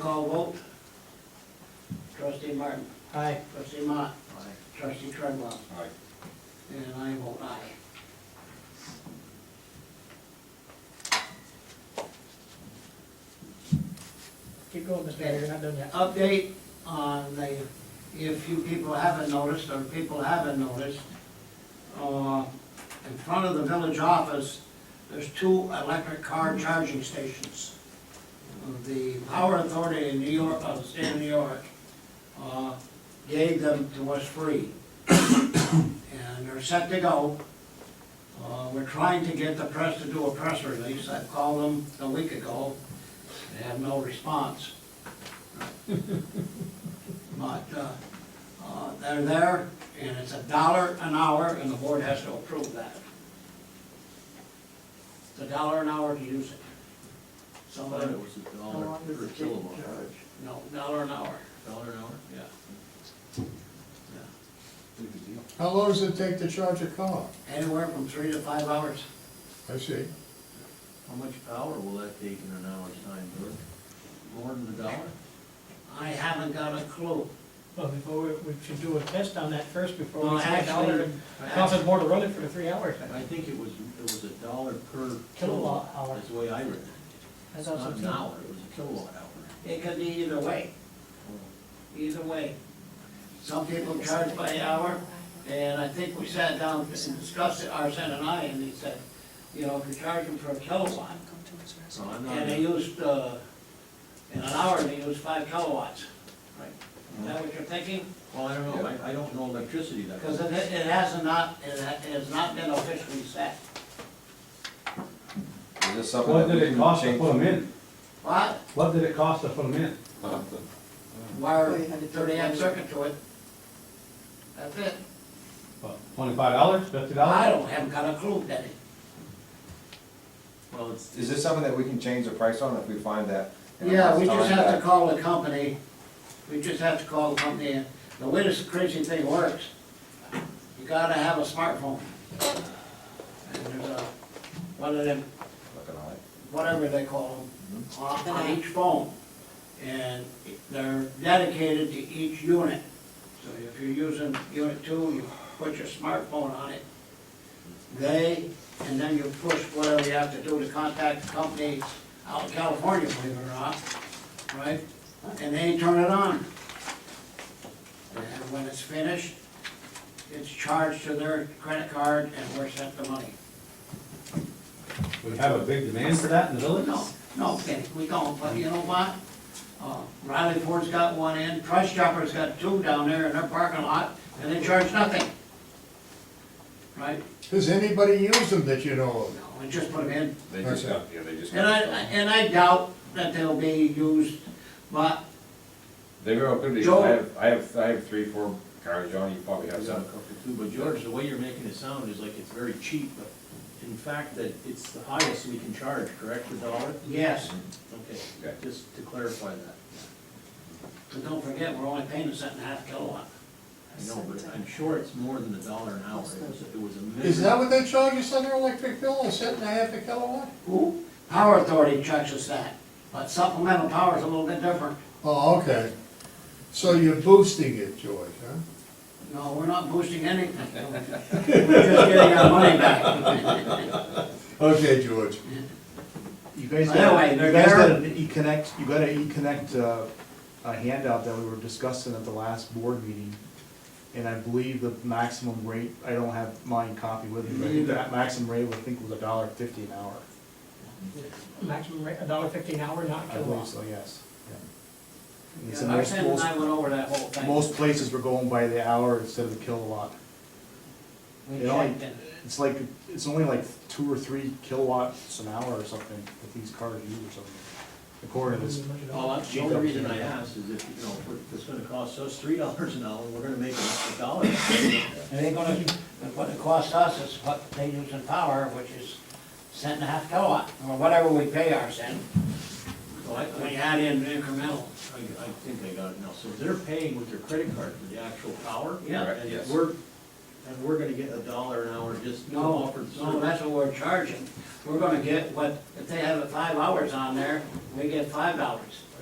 call vote. Trustee Martin. Aye. Trustee Mott. Trustee Tredwell. And I vote aye. Keep going, Mr. Mayor, you're not done yet. Update on the, if you people haven't noticed, or people haven't noticed, uh, in front of the village office, there's two electric car charging stations. Uh, The Power Authority in New York, of the state of New York, uh, gave them to us free. And they're set to go. Uh, We're trying to get the press to do a press release. I called them a week ago. They have no response. But uh, uh, they're there, and it's a dollar an hour, and the board has to approve that. It's a dollar an hour to use it. I thought Somebody, it was a dollar per kilowatt. no, dollar an hour, Dollar an hour? yeah. Big a deal. How long does it take to charge a car? Anywhere from three to five hours. I see. How much power will that take in an hour's time, Bert? More than a dollar? I haven't got a clue. Well, before, we we should do a test on that first before Well, we say a dollar. actually- and Cost us more to run it for three hours. I think it was, it was a dollar per Kilowatt kilowatt. hour. That's the way I read it. That's also Not an true. hour, it was a kilowatt hour. It could be either way, Oh, either way. Some people charge by hour, and I think we sat down and discussed it, Arson and I, and he said, you know, if you charge them for a kilowatt, So I'm and they not, used, uh, in an hour, they used five kilowatts. Is that what you're thinking? well, I don't know, I, I don't know electricity that Because well. it, it has not, it ha- it has not been officially set. Is this something What that did we it can cost to change? put them in? What? What did it cost to put them in? Wire thirty amp circuit to it. That's it. What, Twenty-five dollars, fifty I dollars? don't, haven't got a clue, Denny. Well, it's, Is this something that we can change the price on if we find that? in a Yeah, month's we just time have to that- call the company, we just have to call the company, and the way this crazy thing works, you gotta have a smartphone. And there's a, one of them, Looking at it. whatever they call them, on on each phone. And they're dedicated to each unit. So if you're using unit two, you put your smartphone on it. They, and then you push whatever you have to do to contact the company out in California, believe it or not, right? And they turn it on. And when it's finished, it's charged to their credit card and we're sent the money. We have a big demand for that in the village? No, no, Kenny, we don't, but you know what? Uh, Riley Ford's got one in, Price Chopper's got two down there in their parking lot, and they charge nothing. Right? Does anybody use them that you know No, we just put them in. They just Okay. got, yeah, they just And I, got. some. and I doubt that they'll be used, but They very well could be, Joe- I have, I have, I have three, four cars, John, you probably have I've got a some. couple too, but George, the way you're making it sound is like it's very cheap, but in fact, that it's the highest we can charge, correct, a dollar? yes, Okay, Okay. just to clarify that. but don't forget, we're only paying a cent and a half kilowatt. I know, but I'm sure it's more than a dollar an hour. It was, it was a of? minimum. Is that what they charge us on their electric bill, a cent and a half a kilowatt? Who? Power Authority charges that, but supplemental power's a little bit different. Oh, okay. So you're boosting it, George, huh? No, we're not boosting anything. We're just getting our money back. Okay, George. You guys By the way, got, you they're guys there- got an E-connect, you got an E-connect, uh, a handout that we were discussing at the last board meeting. And I believe the maximum rate, I don't have mine copy with me, but I think that maximum rate, I think was a dollar fifty an hour. Maximum rate, a dollar fifteen an hour, not a I believe kilowatt. so, yes. yeah. And Yeah, so most- Arsen and I went over that whole most- thing. Most places were going by the hour instead of the kilowatt. We It only- checked it. It's like, it's only like two or three kilowatts an hour or something that these cars use or something, according to this Well, that's the only reason I asked is if, you know, if we're- it's gonna cost us three dollars an hour, we're gonna make a dollar. It ain't gonna, what it costs us is what they use in power, which is cent and a half kilowatt, or whatever we pay our cent, So I, when you I, add in incremental. I I think I got it now. So they're paying with their credit card for the actual power? Yeah. Correct, And yes. we're, and we're gonna get a dollar an hour just to No, offer the no, service. that's what we're charging. We're gonna get what, if they have it five hours on there, we get five dollars.